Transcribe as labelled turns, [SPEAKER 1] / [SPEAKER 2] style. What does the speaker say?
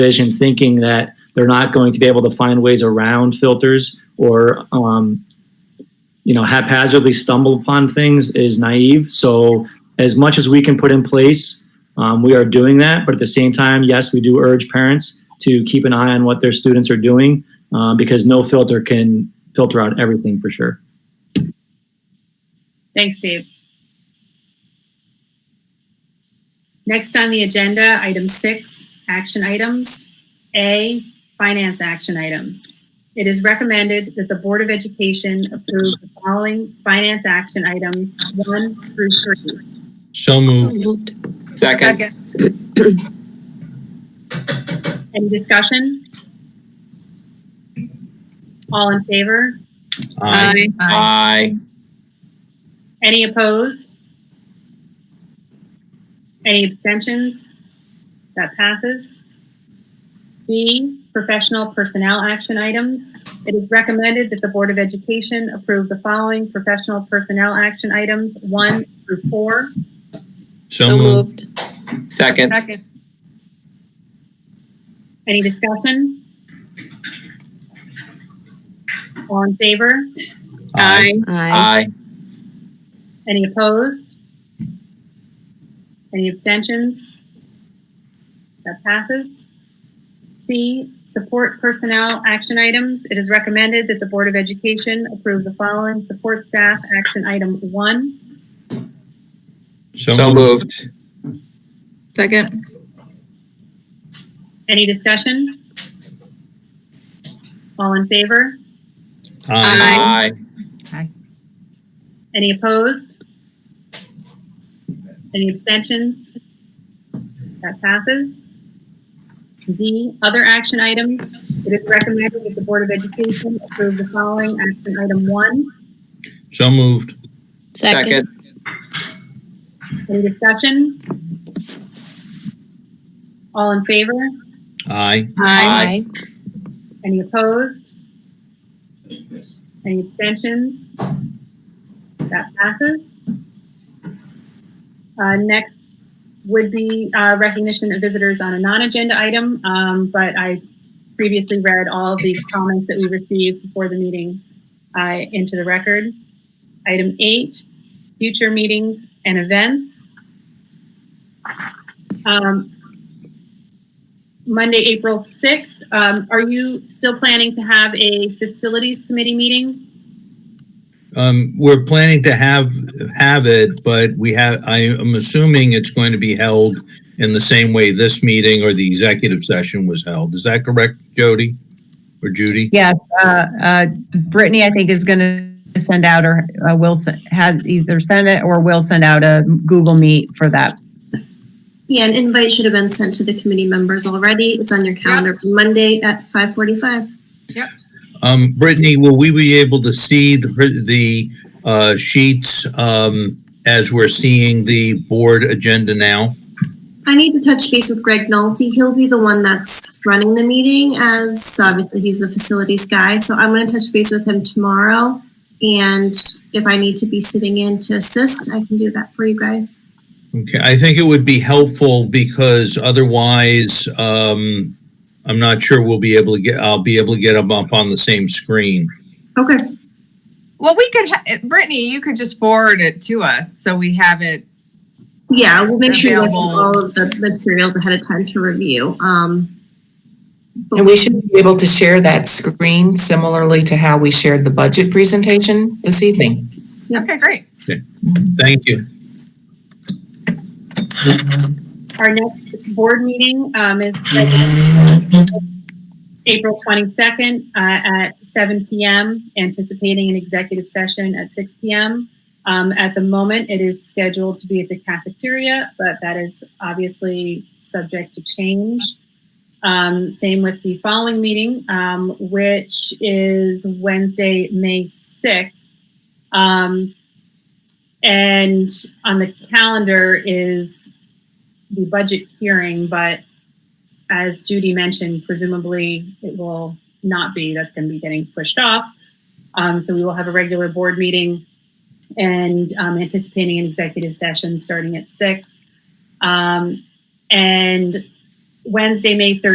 [SPEAKER 1] vision thinking that they're not going to be able to find ways around filters or um, you know haphazardly stumble upon things is naive so as much as we can put in place um, we are doing that but at the same time yes we do urge parents to keep an eye on what their students are doing uh, because no filter can filter out everything for sure
[SPEAKER 2] Thanks, Dave. Next on the agenda, item six, action items. A, finance action items. It is recommended that the Board of Education approve the following finance action items, one through three.
[SPEAKER 3] So moved.
[SPEAKER 4] moved.
[SPEAKER 5] Second.
[SPEAKER 2] Any discussion? All in favor?
[SPEAKER 3] Aye.
[SPEAKER 5] Aye.
[SPEAKER 2] Any opposed? Any abstentions? That passes. B, professional personnel action items. It is recommended that the Board of Education approve the following professional personnel action items, one through four.
[SPEAKER 3] So moved.
[SPEAKER 5] Second.
[SPEAKER 4] Second.
[SPEAKER 2] Any discussion? All in favor?
[SPEAKER 5] Aye.
[SPEAKER 4] Aye.
[SPEAKER 5] Aye.
[SPEAKER 2] Any opposed? Any abstentions? That passes. C, support personnel action items. It is recommended that the Board of Education approve the following support staff action item one.
[SPEAKER 5] So moved.
[SPEAKER 4] Second.
[SPEAKER 2] Any discussion? All in favor?
[SPEAKER 3] Aye.
[SPEAKER 5] Aye.
[SPEAKER 2] Any opposed? Any abstentions? That passes. D, other action items. It is recommended that the Board of Education approve the following action item one.
[SPEAKER 3] So moved.
[SPEAKER 5] Second.
[SPEAKER 2] Any discussion? All in favor?
[SPEAKER 3] Aye.
[SPEAKER 5] Aye.
[SPEAKER 2] Any opposed? Any abstentions? That passes. Uh, next would be, uh, recognition of visitors on a non-agenda item, um, but I previously read all of the comments that we received before the meeting, uh, into the record. Item eight, future meetings and events. Um, Monday, April 6th. Um, Are you still planning to have a facilities committee meeting?
[SPEAKER 3] Um, we're planning to have, have it, but we have, I am assuming it's going to be held in the same way this meeting or the executive session was held. Is that correct, Jody? Or Judy?
[SPEAKER 6] Yes, uh, uh, Brittany, I think, is going to send out or uh, will, se- has either sent it or will send out a Google Meet for that.
[SPEAKER 7] Yeah, an invite should have been sent to the committee members already. It's on your calendar for Monday at five forty-five.
[SPEAKER 3] Um, Brittany, will we be able to see the, the, uh, sheets, um, as we're seeing the board agenda now?
[SPEAKER 7] I need to touch base with Greg Nolte. He'll be the one that's running the meeting as obviously he's the facilities guy. So I'm gonna touch base with him tomorrow. And if I need to be sitting in to assist, I can do that for you guys.
[SPEAKER 3] Okay, I think it would be helpful because otherwise, um, I'm not sure we'll be able to get, I'll be able to get them up on the same screen.
[SPEAKER 7] Okay.
[SPEAKER 8] Well, we could, ha- Brittany, you could just forward it to us so we have it.
[SPEAKER 7] Yeah, we'll make sure you have
[SPEAKER 8] Available.
[SPEAKER 7] all of the materials ahead of time to review. Um, but
[SPEAKER 9] And we should be able to share that screen similarly to how we shared the budget presentation this evening.
[SPEAKER 8] Okay, great.
[SPEAKER 3] Thank you.
[SPEAKER 2] Our next board meeting um, is scheduled April 22nd uh, at 7 PM, anticipating an executive session at 6 PM. Um, At the moment, it is scheduled to be at the cafeteria, but that is obviously subject to change. Um, Same with the following meeting, um, which is Wednesday, May 6th. Um, And on the calendar is the budget hearing, but as Judy mentioned, presumably it will not be. That's going to be getting pushed off. Um, so we will have a regular board meeting and um, anticipating an executive session starting at six. Um, and Wednesday, May 13th.